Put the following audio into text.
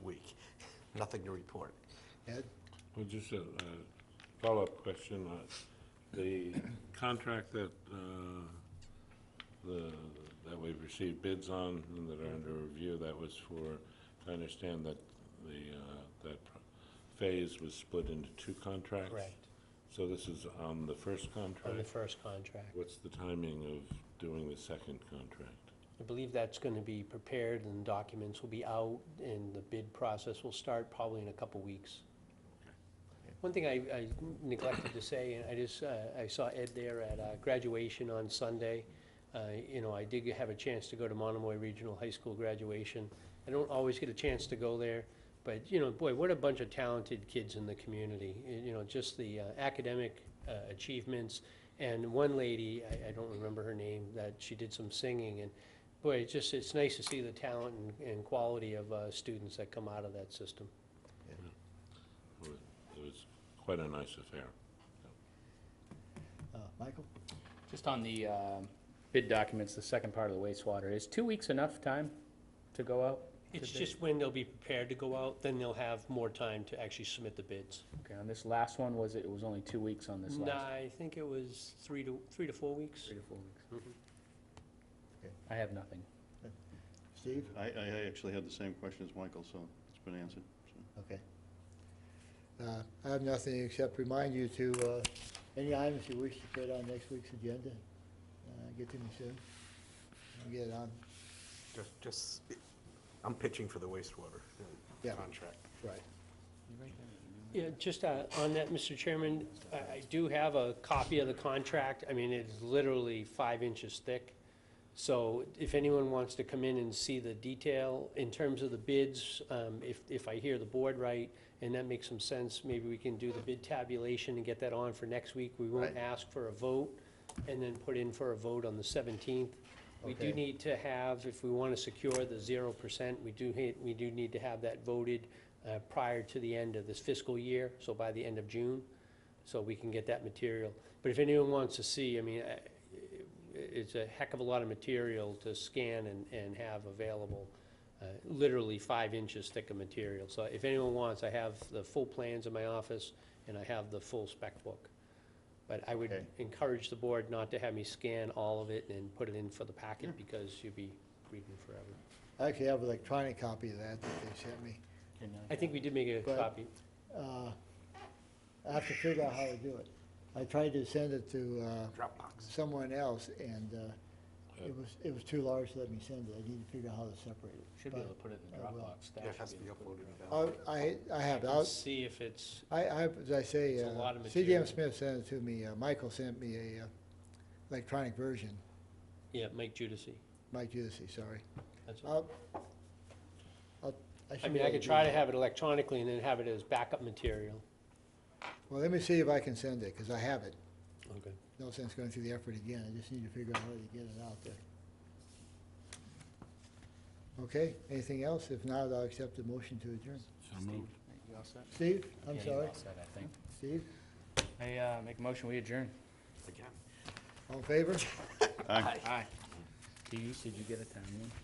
nothing to report. Ed? Well, just a uh, follow-up question. uh, The contract that, uh, the, that we've received bids on and that are under review, that was for, I understand that the, uh, that pro- phase was split into two contracts? Correct. So this is on the first on the contract? first contract. What's the timing of doing the second contract? I believe that's going to be prepared and documents will be out and the bid process will start probably in a couple weeks. One thing I I neglected to say, and I just, uh, I saw Ed there at uh, graduation on Sunday. Uh, You know, I did have a chance to go to Monomoy Regional High School graduation. I don't always get a chance to go there, but, you know, boy, what a bunch of talented kids in the community. Y- You know, just the uh, academic uh, achievements. And one lady, I- I don't remember her name, that she did some singing, and boy, it's just, it's nice to see the talent and- and quality of uh, students that come out of that system. It was- It was quite a nice affair. Uh, Michael? Just on the um, bid documents, the second part of the wastewater, is two weeks enough time to go out? to It's bid? just when they'll be prepared to go out, then they'll have more time to actually submit the bids. Okay, on this last one, was it, it was only two weeks on this Nah, last? I think it was three to, three to four weeks. Three to four Mm-hmm. weeks. Mhm. Okay. I have nothing. Steve? I, I actually had the same question as Michael, so it's been answered. Okay. Uh, I have nothing except remind you to, uh, any items you wish to put on next week's agenda, uh, get to me soon. I'll get it on, Just, just, I'm pitching for the wastewater uh, Yeah. contract. right. Yeah, just uh, on that, Mr. Chairman, I- I do have a copy of the contract. I mean, it's literally five inches thick. So if anyone wants to come in and see the detail in terms of the bids, um, if, if I hear the board right, and that makes some sense, maybe we can do the bid tabulation and get that on for next week. We won't Right. ask for a vote and then put in for a vote on the 17th. We do Okay. need to have, if we want to secure the 0%, we do, hit- we do need to have that voted uh, prior to the end of this fiscal year, so by the end of June, so we can get that material. But if anyone wants to see, I mean, I- i- it's a heck of a lot of material to scan and, and have available, uh, literally five inches thick of material. So if anyone wants, I have the full plans in my office, and I have the full spec book. But I would Okay. encourage the board not to have me scan all of it and put it in for the packet, because you'd be reading forever. I actually have an electronic copy of that that they sent me. I think we did make a But- copy. Uh, I have to figure out how to do it. I tried to send it to, uh, Dropbox. someone else, and, uh, it was, it was too large to let me send it. I need to figure out how to separate it. Should be able to But put it in the I will. Dropbox. That uh, Yeah, it has should to be able uploaded. put it in and the I'll- downloaded. Uh, I, I have, I'll, Let's see if it's, I, I, as I say, It's a uh, lot of material. CDM Smith sent it to me, uh, Michael sent me a uh, electronic version, yeah, Mike Judici. Mike Giudice, sorry. That's all. I'll, I'll, I should. I be mean, able I could do try to that. have it electronically and then have it as backup material. Well, let me see if I can send it, because I have it. Okay. No sense going through the effort again, I just need to figure out how to get it out there. Okay, anything else? If not, I'll accept the motion to adjourn. So moved. You all set? Steve, Yeah, I'm you're sorry, all set, I think. Steve, I uh, make a motion, we adjourn. Again. all in favor? Aye. Do you, did you get a time?